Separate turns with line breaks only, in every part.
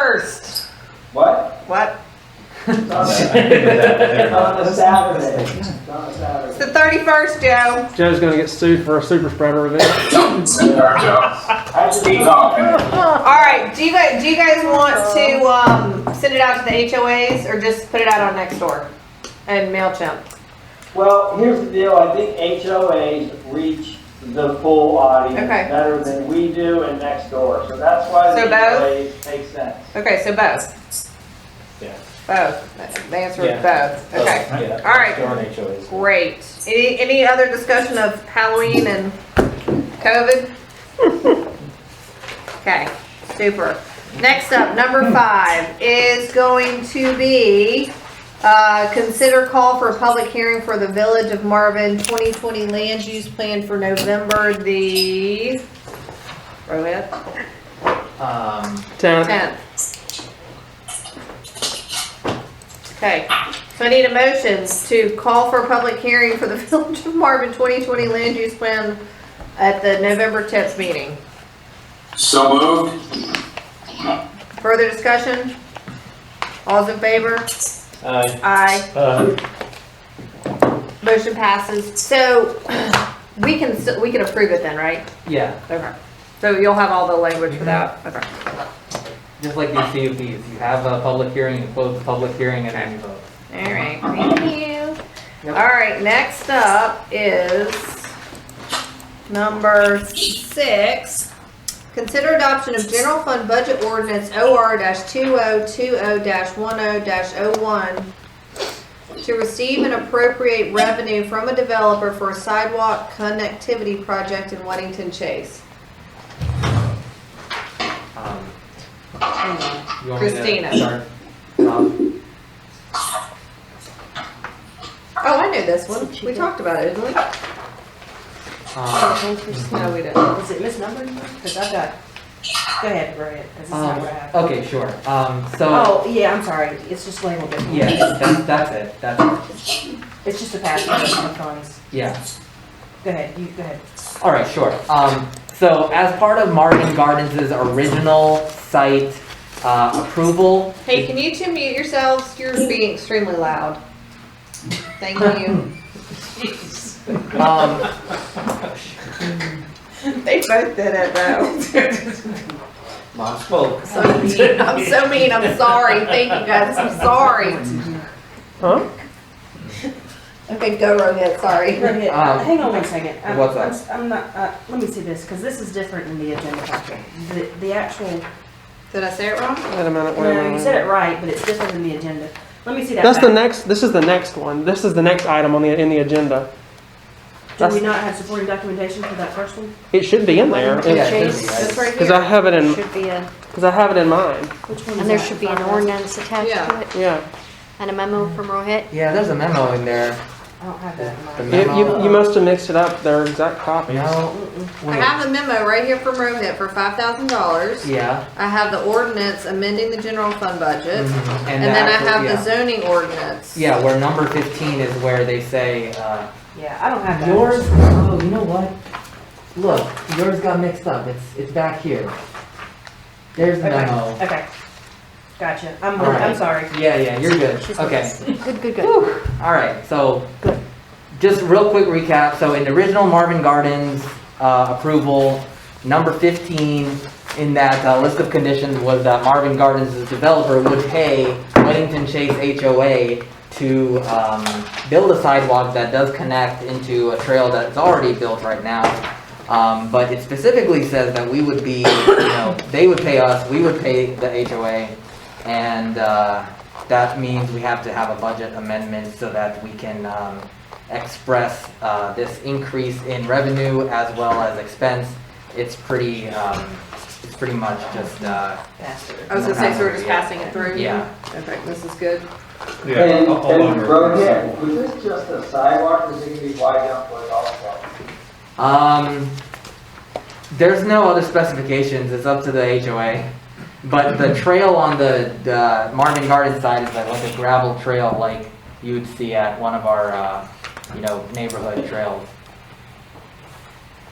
first.
What?
What?
It's on a- it's on a Saturday. It's on a
It's
Saturday.
the thirty-first, Joe.
Joe's gonna get sued for a super spreader event.
I just need to
All right. Do you guys do you guys want to um, send it out to the HOAs or just put it out on Nextdoor and Mailchimp?
Well, here's the deal, I think HOAs reach the full audience
Okay.
better than we do and next door, so that's why
So
the
both?
HOAs make sense.
Okay, so both.
Yeah.
Both. The answer is both.
Oh,
Okay.
yeah.
All right.
Darn HOAs.
Great. Any any other discussion of Halloween and COVID? okay. Super. Next up, number five is going to be uh, consider call for a public hearing for the Village of Marvin 2020 land use plan for November the Rohit,
Um,
Ten.
10th. Okay, so I need a motion to call for a public hearing for the Village of Marvin 2020 land use plan at the November 10th meeting.
So moved.
Further discussion? All's in favor?
uh,
Aye.
uh,
Motion passes. So we can, s- we can approve it then, right?
Yeah,
Okay. So you'll have all the language for that? Okay.
just like these CUPs, you have a public hearing, you close the public hearing, and then you vote.
All right, thank you.
Yep.
All right, next up is number six. Consider adoption of general fund budget ordinance OR two oh two oh one oh one to receive and appropriate revenue from a developer for a sidewalk connectivity project in Weddington Chase.
Um,
Hang on.
you want me to
Christina.
start? Um,
Oh, I knew this one. We talked about it, didn't we?
um,
No, we didn't.
Was it misnumbered? Because I've got, go ahead, Brian, 'cause it's
Um,
not what I have.
Okay, sure, um, so,
Oh, yeah, I'm sorry, it's just labeled different.
yeah, that's, that's it, that's, it.
It's just a passage of funds.
yeah.
Go ahead, you, go ahead.
All right, sure. Um, so as part of Marvin Gardens' original site, uh, approval.
Hey, can you two mute yourselves? You're being extremely loud. Thank you.
Um,
They both did it though.
mom spoke.
So mean. I'm so mean. I'm sorry. Thank you guys. I'm sorry.
Huh?
Okay, go Rohit. Sorry.
Go ahead.
Um,
Hang on one second. I'm-
what's that?
I'm s- I'm not, uh, let me see this, because this is different in the agenda packet. The, the actual,
Did I say it wrong?
Wait a minute, wait a
no, you said
minute.
it right, but it's different in the agenda. Let me see that.
That's the
back.
next, this is the next one. This is the next item on the, in the agenda.
Do
that's-
we not have supporting documentation for that first one?
It should be in there.
Yeah, it
Change
should be,
this
right?
right
Cause I
here.
have it in,
Should be a,
cause I have it in mind.
Which one is
and there
that?
should be an
Five minutes?
ordinance attached
Yeah.
to it
Yeah.
and a memo from Rohit.
Yeah, there's a memo in there.
I don't have that in mind.
You, you, you must have mixed it up. They're exact copies.
No,
I
wait,
have a memo right here from Rohit for five thousand dollars.
yeah.
I have the ordinance amending the general fund budget,
mhm,
and
the
then I
actual-
have
yeah.
the zoning ordinance.
Yeah, where number fifteen is where they say, uh,
Yeah, I don't have that.
yours, oh, you know what? Look, yours got mixed up. It's, it's back here. There's the
Okay,
memo.
Okay, gotcha. I'm,
All right.
I'm sorry.
Yeah, yeah, you're good. Okay.
Good, good, good.
All right, so just real quick recap. So in the original Marvin Gardens uh, approval, number 15 in that uh, list of conditions was that Marvin Gardens, the developer, would pay Weddington Chase HOA to um, build a sidewalk that does connect into a trail that's already built right now. Um, But it specifically says that we would be, you know, they would pay us, we would pay the HOA, and uh, that means we have to have a budget amendment so that we can um, express uh, this increase in revenue as well as expense. It's pretty, um, it's pretty much just, uh,
I was gonna say, so we're just passing it through.
yeah.
Okay, this is good.
And, and Rohit, was this just a sidewalk, or is it gonna be wide enough for a golf cart?
Um, There's no other specifications, it's up to the HOA. But the trail on the the Marvin Garden side is like like a gravel trail like you would see at one of our, uh, you know, neighborhood trails.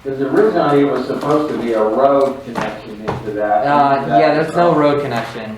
Because originally it was supposed to be a road connection into that.
Uh, Yeah, there's Uh, no road connection.